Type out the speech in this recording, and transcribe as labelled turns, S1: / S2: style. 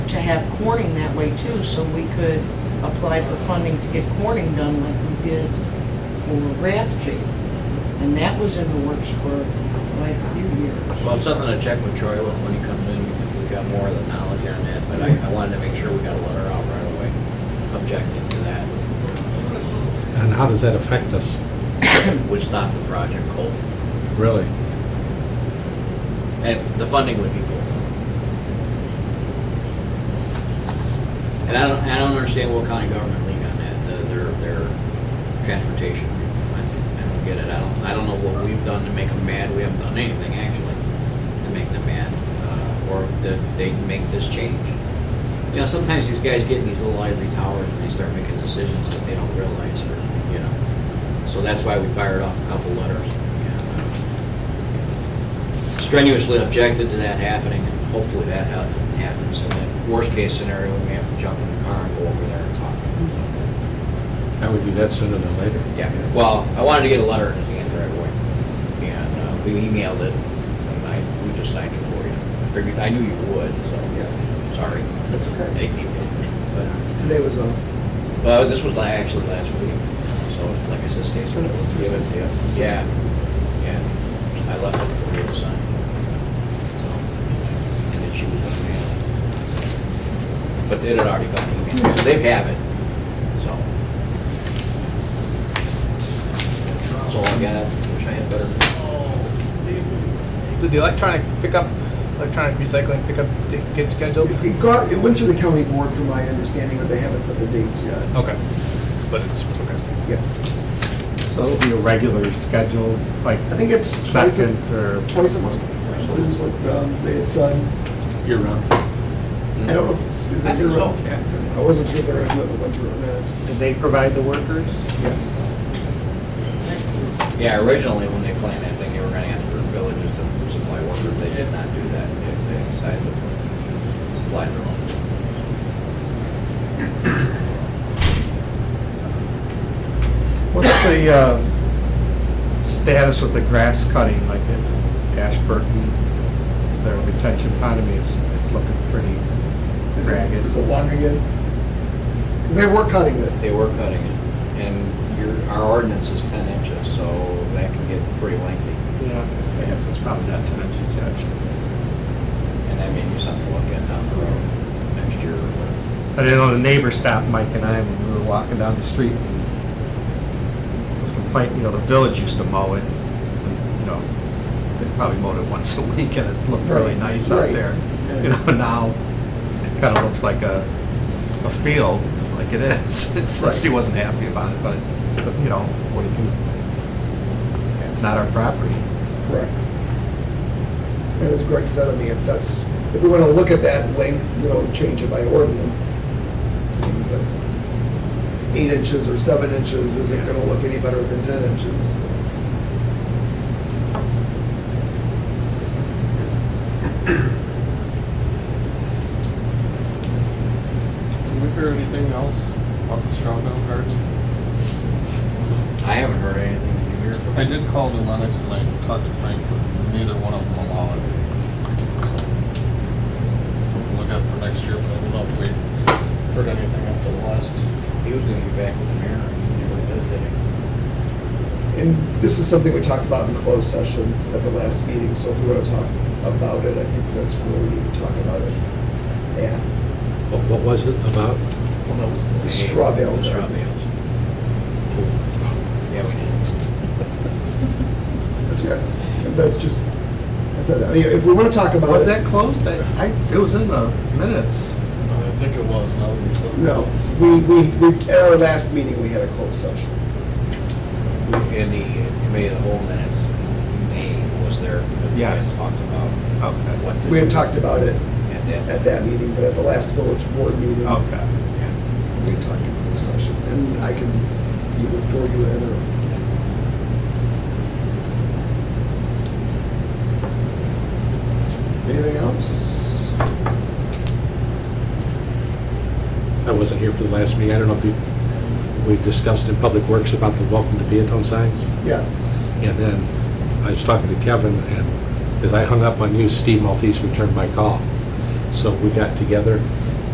S1: have Corning that way too, so we could apply for funding to get Corning done like we did for Rathje. And that was in the works for quite a few years.
S2: Well, it's something to check with Troy with when he comes in, because we got more of the knowledge on that, but I, I wanted to make sure we got a letter out right away objecting to that,
S3: And how does that affect us,
S2: would stop the project cold.
S3: really?
S2: And the funding would be pulled. And I don't, I don't understand what county government league on that, the- their, their transportation. I don't get it, I don't, I don't know what we've done to make them mad, we haven't done anything actually to make them mad, uh, or that they make this change. You know, sometimes these guys get in these little ivory towers and they start making decisions that they don't realize, or, you know. So that's why we fired off a couple letters, you know strenuously objected to that happening, and hopefully that ha- happens. And then worst-case scenario, we may have to jump in the car and go over there and talk.
S3: I would do that sooner than later.
S2: Yeah, well, I wanted to get a letter in his hand right away, and uh, we emailed it, and I, we just signed it for you. I Figured, I knew you would, so, sorry.
S4: That's okay.
S2: Thank you. But,
S4: Today was a,
S2: Well, this was la- actually last week, so like I said, Stacy, I'll give it to you. Yeah, yeah, I left it for you to sign. So, And then she was looking at it. But it had already gone email, so they have it, so. That's all I got, wish I had better.
S5: Did the electronic pickup, electronic recycling pickup di- get scheduled?
S4: it got, it went through the county board from my understanding, but they haven't set the dates yet.
S5: Okay, but it's progressing.
S4: Yes.
S6: So it'll be a regular schedule, like
S4: I think it's twice
S6: second
S4: a,
S6: or,
S4: twice a month. Actually, is what um, they had said.
S3: Year round.
S4: I don't know if it's, is it your room? I wasn't sure if they're gonna do it in the winter or not.
S6: did they provide the workers?
S4: Yes.
S2: Yeah, originally, when they planned that thing, they were gonna have to go to villages to supply workers, they did not do that, They- they decided to supply their own.
S6: What's the, uh, status with the grass cutting, like at Ashburton, their retention pond, I mean, it's, it's looking pretty
S4: Is it,
S6: ragged.
S4: is it long again? Because they were cutting it.
S2: They were cutting it, and your, our ordinance is ten inches, so that can get pretty lengthy,
S6: Yeah, I guess it's probably not ten inches yet.
S2: and that may be something to look at down the road next year. or whatever.
S6: But I know the neighbor stopped Mike and I when we were walking down the street. Was complaining, you know, the village used to mow it, you know, they probably mowed it once a week and it looked really
S4: Right,
S6: nice out
S4: right.
S6: there.
S4: Yeah.
S6: You know, now it kind of looks like a, a field, like it is. It's- She
S4: Right.
S6: wasn't happy about it, but, it- but, you know, what do you do? It's not our property.
S4: Correct. And as Greg said, I mean, if that's, if we want to look at that length, you know, change it by ordinance. I mean, the Eight inches or seven inches isn't going to look any better than 10 inches.
S7: Did we hear anything else about the Strawbell Garden?
S2: I haven't heard anything in here from.
S7: I did call to Lennox and I talked to Frankfurt, neither one of them allowed it. So Something to look out for next year, but I don't know if we heard anything after the last.
S2: He was gonna be back with the mayor, and he never did, did he?
S4: And this is something we talked about in closed session at the last meeting, so if we want to talk about it, I think that's where we need to talk about it. Yeah,
S3: What what was it about?
S2: Well, that was
S4: The straw bale.
S2: The straw bales. Yeah, we did.
S4: that's good. And That's just, I said, I mean, if we want to talk about it.
S6: Was that closed? I, I, it was in the minutes.
S7: I think it was, now that you said
S4: No, we, we, we, at our last meeting, we had a closed session.
S2: We- In the committee of the whole minutes, May was there. and we had
S6: Yes.
S2: Talked about
S6: Okay.
S2: what.
S4: We had talked about it
S2: At that.
S4: at that meeting, but at the last village board meeting,
S6: Okay.
S4: we had talked in closed session. And I can either fill you in or, anything else?
S3: I wasn't here for the last meeting. I don't know if you, we discussed in Public Works about the welcome to Peatone signs.
S4: Yes.
S3: And then I was talking to Kevin, and as I hung up on you, Steve Maltese returned my call. So we got together